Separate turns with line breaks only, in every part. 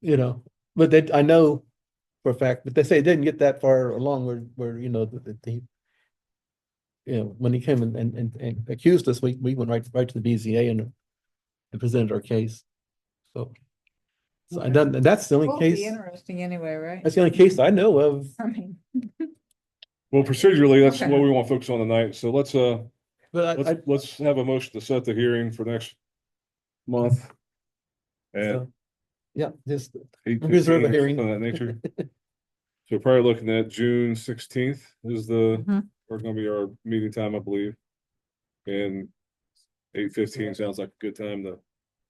you know, but they, I know for a fact, but they say it didn't get that far along where, where, you know, that, that he you know, when he came and, and, and- and accused us, we, we went right, right to the BZA and and presented our case. So, so and then, and that's the only
Won't be
case,
Interesting anyway, right?
that's the only case I know of.
I mean,
Well, procedurally, that's
Okay.
what we want to focus on tonight. So let's, uh,
But I, I,
let's, let's have a motion to set the hearing for next month. And.
so, yeah, just, reserve a hearing.
Of that nature. So probably looking at June sixteenth is the,
Mhm.
are gonna be our meeting time, I believe. And eight fifteen sounds like a good time to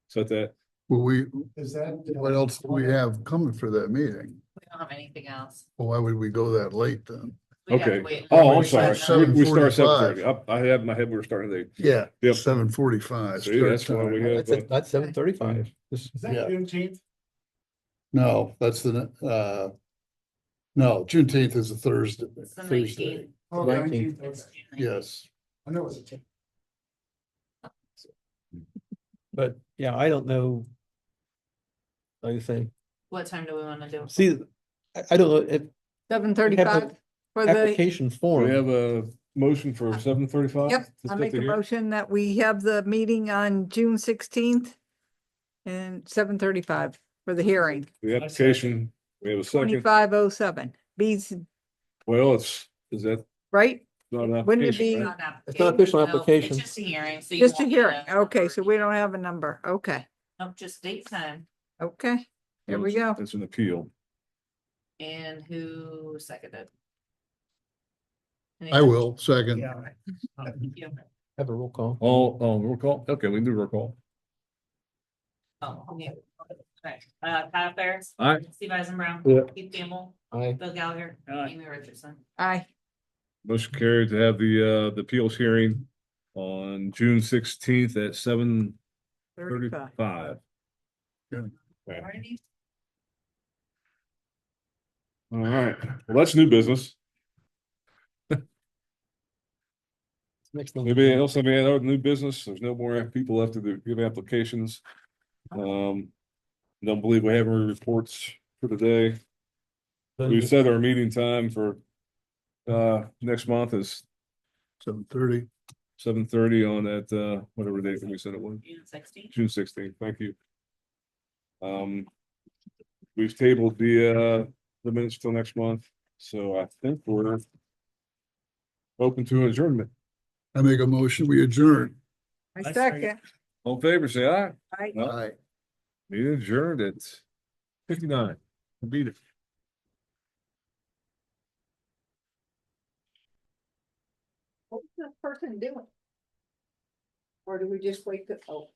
set that.
Well, we,
Is that?
what else do we have coming for that meeting?
We don't have anything else.
Well, Why would we go that late then?
We'd have to
Okay.
wait
Oh, I'm
until
sorry.
we
starts
We-
find out.
We start at seven
7:45.
thirty. I, I had in my head, we were starting at eight.
Yeah.
Yep.
Seven forty-five.
See, that's why we have,
that's,
uh,
that's seven thirty-five.
Is that
Yeah.
Juneteenth?
No, that's the, uh, no, Juneteenth is a Thursday,
It's the
Thursday.
19th.
Oh,
Nineteenth.
okay.
It's June 19th.
Yes.
I know it's a.
But yeah, I don't know. Like I say,
What time do we wanna do?
see, I, I don't know, if
seven thirty-five for the,
application
we
form,
have a motion for seven thirty-five.
yep, I make a motion that we have the meeting on June sixteenth and seven thirty-five for the hearing,
The application, we have a second.
twenty-five oh seven. B's,
Well, it's, is that
right?
not an
Wouldn't it
application,
be-
Not
right?
an
It's not official
no, it's
application.
Just a hearing. so you
Just a
won't need
hearing. Okay, so
number.
we don't have a number. Okay,
Nope, just date time
okay. Here we go.
It's an appeal.
and who seconded.
I will, second.
Yeah.
Thank you.
have a roll call.
Oh, oh, roll call? Okay, we can do roll call.
Oh, okay. Okay, Uh, Kyle Ferris.
Aye.
Steve Eisenbrow.
Yeah.
Keith Gamble.
Aye.
Bill Gallagher.
Aye.
Amy Richardson.
Aye.
Motion carried to have the, uh, the appeals hearing on June sixteenth at seven
Thirty-five.
thirty-five.
Alrighty.
All right, well, that's new business.
Next one.
Maybe else, I mean, other new business, there's no more people left to do- give applications. Um, don't believe we have any reports for today. We've set our meeting time for, uh, next month is
Seven thirty.
seven thirty on that, uh, whatever date that we said it was.
June sixteenth.
June sixteenth, thank you. Um, we've tabled the, uh, the minutes till next month, so I think we're open to adjournment.
I make a motion, we adjourn.
I second.
All in favor, say aye.
Aye.
No.
Aye.
Meeting adjourned at fifty-nine. Beat it.
What's this person doing? Or do we just wait to, oh.